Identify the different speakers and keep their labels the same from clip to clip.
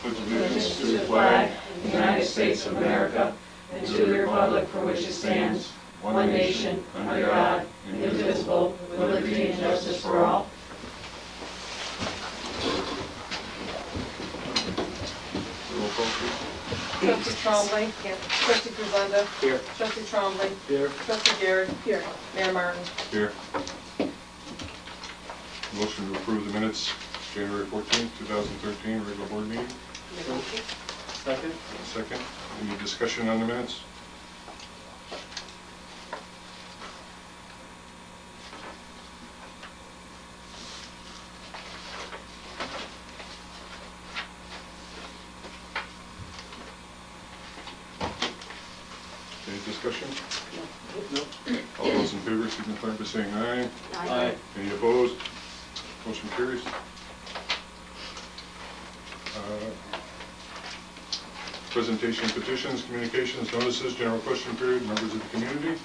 Speaker 1: Pledge
Speaker 2: allegiance to the flag of the United States of America and to the republic for which it stands, one nation, under God, indivisible, with liberty and justice for all.
Speaker 1: Roll call, please.
Speaker 3: Trustee Trombley. Here. Trustee Grisenda.
Speaker 1: Here.
Speaker 3: Trustee Trombley.
Speaker 1: Here.
Speaker 3: Trustee Garrett. Here. Mayor Martin.
Speaker 1: Here. Motion to approve the minutes, January fourteenth, two thousand thirteen, regular board meeting.
Speaker 4: Second?
Speaker 1: Second, any discussion on the minutes? Any discussion?
Speaker 4: No.
Speaker 1: All those in favor signify by saying aye.
Speaker 4: Aye.
Speaker 1: Any opposed? Motion carries. Uh, Presentation petitions, communications, notices, general question period, members of the community.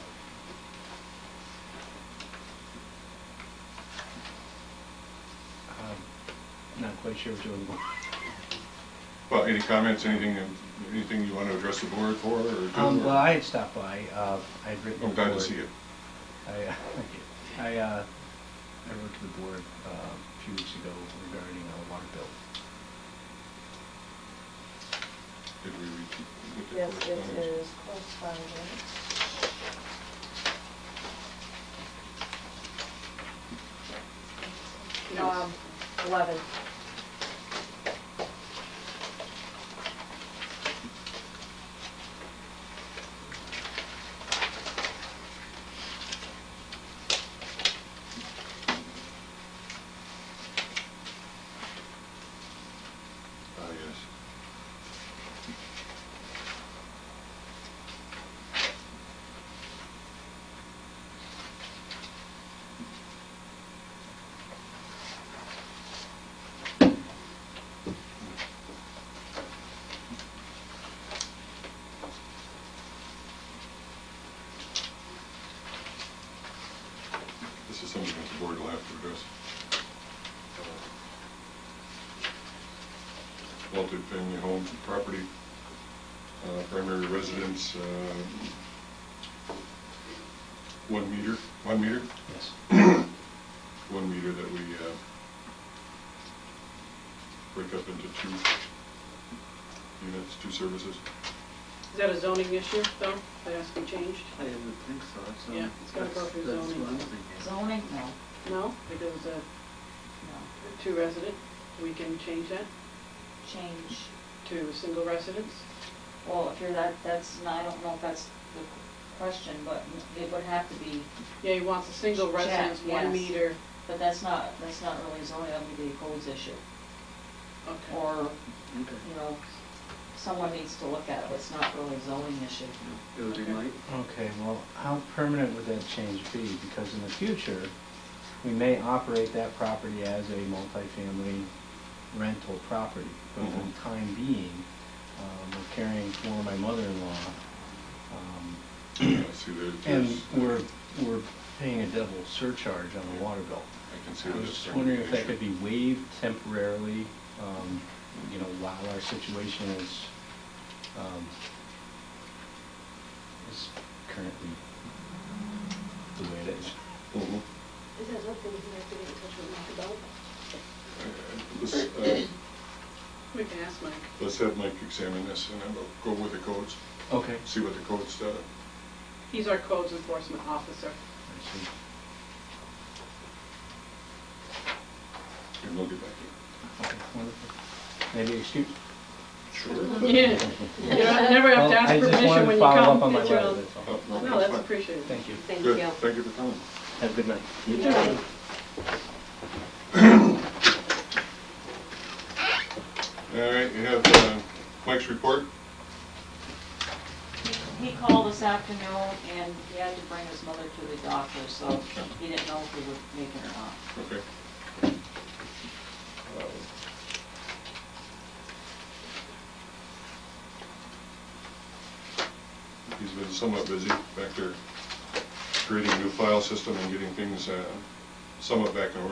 Speaker 5: Um, Not quite sure what you're looking
Speaker 1: Well, any comments, anything, anything you want to address the board for or do?
Speaker 5: for. Um, Well, I had stopped by, uh, I had written.
Speaker 1: I'm glad to
Speaker 5: board.
Speaker 1: see you.
Speaker 5: I, uh, I, uh, I wrote to the board uh, a few weeks ago regarding a water bill.
Speaker 1: Did we read?
Speaker 3: Yes, it is correspondence. Um, 11.
Speaker 1: Ah, yes. This is something that the board will have to address. Multi-family home property, uh, primary residence, uh, one meter, one meter,
Speaker 5: Yes.
Speaker 1: one meter that we uh, break up into two units, two services.
Speaker 6: Is that a zoning issue, though? That has to be changed?
Speaker 4: I didn't think so, so.
Speaker 6: Yeah, it's gotta go through
Speaker 4: that's- That's
Speaker 6: zoning.
Speaker 4: what I'm thinking.
Speaker 2: Zoning? No, no,
Speaker 6: No, because it's a two resident, we can change that
Speaker 2: change,
Speaker 6: to single residence.
Speaker 2: well, if you're that, that's, not- I don't know if that's the question, but it would have to be,
Speaker 6: Yeah, he wants a single
Speaker 2: Check,
Speaker 6: residence,
Speaker 2: yes.
Speaker 6: one meter.
Speaker 2: but that's not, that's not really zoning, that would be a codes issue.
Speaker 6: Okay.
Speaker 2: Or,
Speaker 4: Okay.
Speaker 2: you know, someone needs to look at it, it's not really a zoning issue.
Speaker 4: It would be
Speaker 6: Okay.
Speaker 4: Mike.
Speaker 5: Okay, well, how permanent would that change be? Because in the future, we may operate that property as a multifamily rental property. But for the
Speaker 1: Mhm.
Speaker 5: time being, um, we're caring for my mother-in-law. um,
Speaker 1: Yeah, I See, there-
Speaker 5: And
Speaker 1: there's,
Speaker 5: we're, we're paying a double surcharge on the water bill.
Speaker 1: I can see
Speaker 5: I
Speaker 1: where
Speaker 5: was
Speaker 1: that's
Speaker 5: just
Speaker 1: starting to
Speaker 5: wondering if that
Speaker 1: issue.
Speaker 5: could be waived temporarily, um, you know, while our situation is, um, is currently the way it is.
Speaker 1: Mhm.
Speaker 7: Is that something you have to get in touch with Mike about?
Speaker 1: Uh, Let's, uh,
Speaker 6: We can ask Mike.
Speaker 1: let's have Mike examine this and then we'll go with the codes,
Speaker 5: Okay.
Speaker 1: see what the codes, uh,
Speaker 6: He's our codes enforcement officer.
Speaker 5: I see.
Speaker 1: and we'll get back to
Speaker 5: Okay, wonderful. Maybe excuse.
Speaker 1: you. Sure. Oh,
Speaker 6: Yeah, you don't- never have
Speaker 5: Well,
Speaker 6: to ask
Speaker 5: I
Speaker 6: for
Speaker 5: just
Speaker 6: permission
Speaker 5: wanted
Speaker 6: when
Speaker 5: to
Speaker 6: you
Speaker 5: follow up on
Speaker 6: come.
Speaker 5: my
Speaker 6: It's your
Speaker 5: letter,
Speaker 6: own-
Speaker 5: that's all.
Speaker 6: No, that's
Speaker 1: pretty.
Speaker 6: appreciated.
Speaker 5: Thank you.
Speaker 7: Thank
Speaker 1: Good,
Speaker 7: you.
Speaker 1: thank you for coming.
Speaker 5: Have a good night.
Speaker 1: All right, we have uh, Mike's report.
Speaker 2: He- He called this afternoon and he had to bring his mother to the doctor, so he didn't know if he would make it or not.
Speaker 1: Okay. He's been somewhat busy back there creating a new file system and getting things uh, somewhat back in order.